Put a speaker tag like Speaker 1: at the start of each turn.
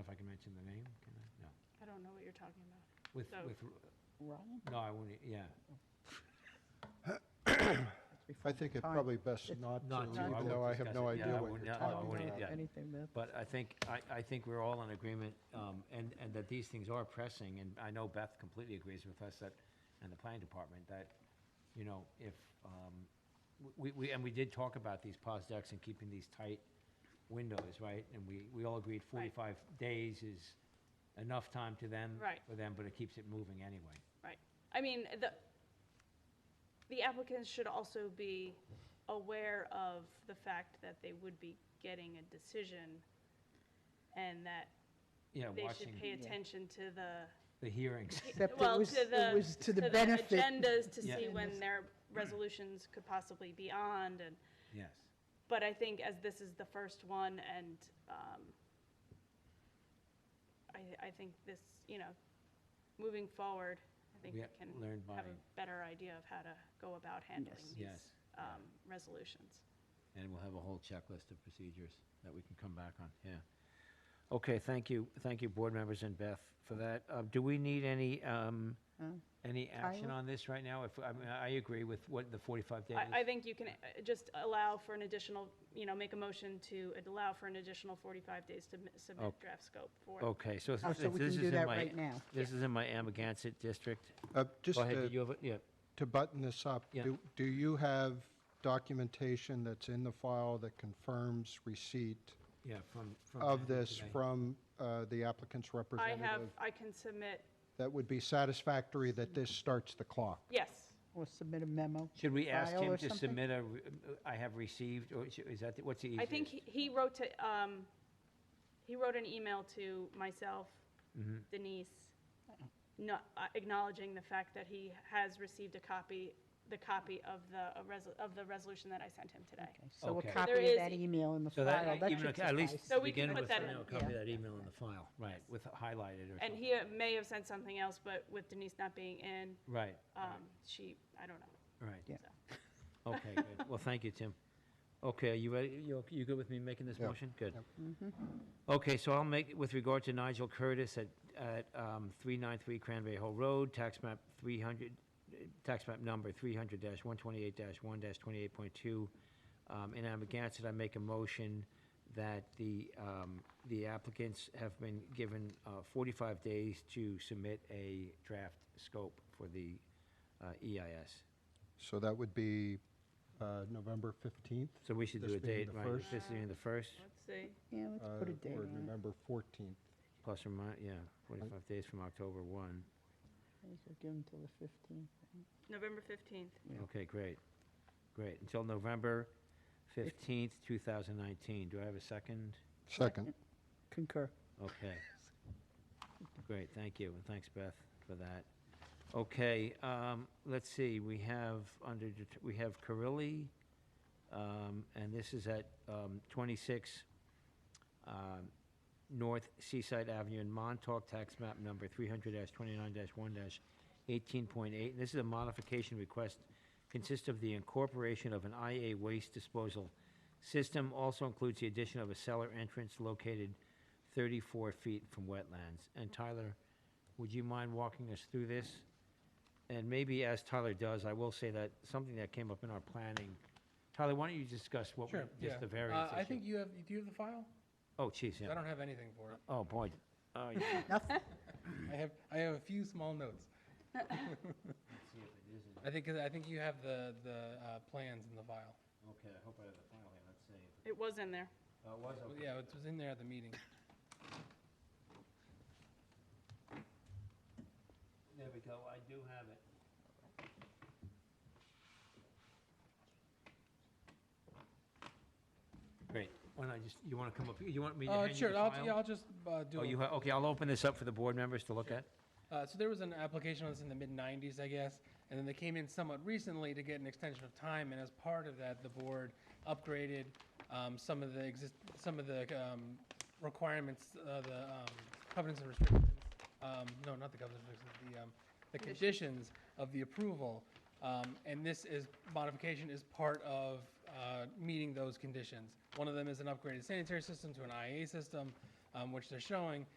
Speaker 1: if I can mention the name, can I? No.
Speaker 2: I don't know what you're talking about.
Speaker 1: With,
Speaker 2: No.
Speaker 1: with,
Speaker 3: Ryan?
Speaker 1: no, I wouldn't, yeah.
Speaker 4: I think it
Speaker 3: Time.
Speaker 4: probably best not
Speaker 1: Not to,
Speaker 4: to,
Speaker 1: I
Speaker 4: even
Speaker 1: won't
Speaker 4: though I have
Speaker 1: discuss
Speaker 4: no
Speaker 1: it. Yeah,
Speaker 4: idea
Speaker 1: I
Speaker 4: what
Speaker 1: wouldn't-
Speaker 4: you're
Speaker 1: yeah, I
Speaker 4: talking
Speaker 1: wouldn't,
Speaker 4: about.
Speaker 1: yeah.
Speaker 3: Anything that,
Speaker 1: But I think, I, I think we're all in agreement, um, and, and that these things are pressing, and I know Beth completely agrees with us that, and the planning department, that, you know, if, um, we, we, and we did talk about these pos decks and keeping these tight windows, right? And we, we all agreed
Speaker 2: Right.
Speaker 1: forty-five days is enough time to them.
Speaker 2: Right.
Speaker 1: For them, but it keeps it moving anyway.
Speaker 2: I mean, the, the applicants should also be aware of the fact that they would be getting a decision and that
Speaker 1: Yeah,
Speaker 2: they
Speaker 1: watching
Speaker 2: should pay
Speaker 3: Yeah.
Speaker 2: attention to the,
Speaker 1: the hearings.
Speaker 3: except it
Speaker 2: well,
Speaker 3: was,
Speaker 2: to the-
Speaker 3: it was to the
Speaker 2: to the
Speaker 3: benefit.
Speaker 2: agendas to
Speaker 1: Yeah.
Speaker 2: see when their resolutions could possibly be on and,
Speaker 1: Yes.
Speaker 2: but I think as this is the first one and, um, I, I think this, you know, moving forward, I think
Speaker 1: We
Speaker 2: we
Speaker 1: ha-
Speaker 2: can
Speaker 1: learned by,
Speaker 2: have a better idea of how to go about handling
Speaker 3: Yes.
Speaker 2: these
Speaker 1: yes.
Speaker 2: um, resolutions.
Speaker 1: And we'll have a whole checklist of procedures that we can come back on, yeah. Okay, thank you, thank you, board members and Beth, for that. Uh, Do we need any, um,
Speaker 3: Huh?
Speaker 1: any action
Speaker 3: Tyler?
Speaker 1: on this right now? If, I mean, I agree with what the 45 days.
Speaker 2: I, I think you can uh, just allow for an additional, you know, make a motion to uh, allow for an additional 45 days to mi- submit
Speaker 1: Okay.
Speaker 2: draft scope for.
Speaker 1: Okay, so
Speaker 3: Oh,
Speaker 1: this
Speaker 3: so we
Speaker 1: this
Speaker 3: can
Speaker 1: is
Speaker 3: do
Speaker 1: in
Speaker 3: that
Speaker 1: my,
Speaker 3: right now.
Speaker 1: this is in my Amagansett district.
Speaker 4: Uh, Just
Speaker 1: Go ahead,
Speaker 4: to-
Speaker 1: did you have, a- yeah,
Speaker 4: to button this up,
Speaker 1: Yeah.
Speaker 4: do- do you have documentation that's in the file that confirms receipt
Speaker 1: yeah, from. from
Speaker 4: of
Speaker 1: back
Speaker 4: this
Speaker 1: today.
Speaker 4: from uh, the applicant's
Speaker 2: I have,
Speaker 4: representative?
Speaker 2: I can submit,
Speaker 4: That would be satisfactory that this starts the clock.
Speaker 2: yes,
Speaker 3: Or submit a memo.
Speaker 1: Should we ask
Speaker 3: file
Speaker 1: him
Speaker 3: or
Speaker 1: to
Speaker 3: something?
Speaker 1: submit a, re- uh, I have received, or is- is that, the- what's the easiest?
Speaker 2: I think he- he wrote to, um, he wrote an email to myself,
Speaker 1: Mhm.
Speaker 2: Denise, no- uh, acknowledging the fact that he has received a copy, the copy of the, a resol- of the resolution that I sent him today.
Speaker 3: Okay, So a
Speaker 1: Okay. So
Speaker 3: copy
Speaker 2: there
Speaker 3: of that
Speaker 2: is-
Speaker 3: email in the
Speaker 1: So that, e,
Speaker 3: file, that
Speaker 1: even if-
Speaker 3: should
Speaker 1: at least
Speaker 3: suffice.
Speaker 2: So we can
Speaker 1: begin
Speaker 2: put
Speaker 1: with,
Speaker 2: that
Speaker 1: and
Speaker 2: in.
Speaker 1: it'll copy
Speaker 3: Yeah.
Speaker 1: that email in the file, right, with highlighted or something.
Speaker 2: And he uh, may have sent something else, but with Denise not being in,
Speaker 1: Right,
Speaker 2: um, she, I don't know.
Speaker 1: right.
Speaker 3: Yeah.
Speaker 1: Okay, good. Well, thank you, Tim. Okay, are you ready, you, ok- you good with me making this
Speaker 4: Yeah.
Speaker 1: motion? Good.
Speaker 4: Yep.
Speaker 1: Okay, so I'll make, with regard to Nigel Curtis at, at, um, three nine three Cranberry Hill Road, tax map three hundred, tax map number three hundred one twenty-eight one twenty-eight point two. Um, in Amagansett, I make a motion that the, um, the applicants have been given, uh, forty-five days to submit a draft scope for the, uh, EIS.
Speaker 4: So that would be uh, November 15th?
Speaker 1: So we should do
Speaker 4: This
Speaker 1: a
Speaker 4: being
Speaker 1: date,
Speaker 4: the
Speaker 1: right?
Speaker 4: first?
Speaker 1: This being the first,
Speaker 2: Let's see.
Speaker 3: Yeah, let's put
Speaker 4: uh,
Speaker 3: a date
Speaker 4: Or
Speaker 3: on it.
Speaker 4: November 14th?
Speaker 1: plus or minus, yeah, 45 days from October 1.
Speaker 3: We could Give them till the 15th.
Speaker 2: November 15th.
Speaker 3: Yeah.
Speaker 1: Okay, great, great. Until November 15th, 2019. Do I have a second?
Speaker 4: Second.
Speaker 3: Concur.
Speaker 1: Okay. Great, thank you, and thanks, Beth, for that. Okay, um, let's see, we have under, det- we have Carilli, um, and this is at, um, twenty-six, um, North Seaside Avenue in Montauk, tax map number three hundred twenty-nine one eighteen point eight. And this is a modification request, consists of the incorporation of an IA waste disposal system, also includes the addition of a cellar entrance located 34 feet from wetlands. And Tyler, would you mind walking us through this? And maybe as Tyler does, I will say that something that came up in our planning. Tyler, why don't you discuss what, we-
Speaker 5: Sure, yeah.
Speaker 1: just the variance
Speaker 5: Uh, I
Speaker 1: issue?
Speaker 5: think you have, do you have the file?
Speaker 1: Oh, geez,
Speaker 5: I
Speaker 1: yeah.
Speaker 5: don't have anything for it.
Speaker 1: Oh, boy. Oh, yeah.
Speaker 3: Nothing.
Speaker 5: I have, I have a few small notes. I think, I think you have the, the uh, plans in the file.
Speaker 1: Okay, I hope I have the file here, let's see.
Speaker 2: It was in there.
Speaker 1: Oh, it was,
Speaker 5: Well,
Speaker 1: okay.
Speaker 5: Yeah, it was in there at the meeting.
Speaker 1: There we go, I do have it. Great, why don't I just, you want to come up, here? you want me to
Speaker 5: Uh,
Speaker 1: hand you the
Speaker 5: Sure, I'll,
Speaker 1: file?
Speaker 5: yeah, I'll just uh, do
Speaker 1: Oh,
Speaker 5: a
Speaker 1: you, ha- okay, I'll open this up for the board members to look at.
Speaker 5: Uh, so there was an application on this in the mid '90s, I guess, and then they came in somewhat recently to get an extension of time. And as part of that, the board upgraded um, some of the exist, some of the um, requirements, uh, the um, covenants and restrictions. Um, no, not the covenants and restrictions. The um, the conditions of the approval, um, and this is modification is part of uh, meeting those conditions. One of them is an upgraded sanitary system to an IA system, um, which they're showing,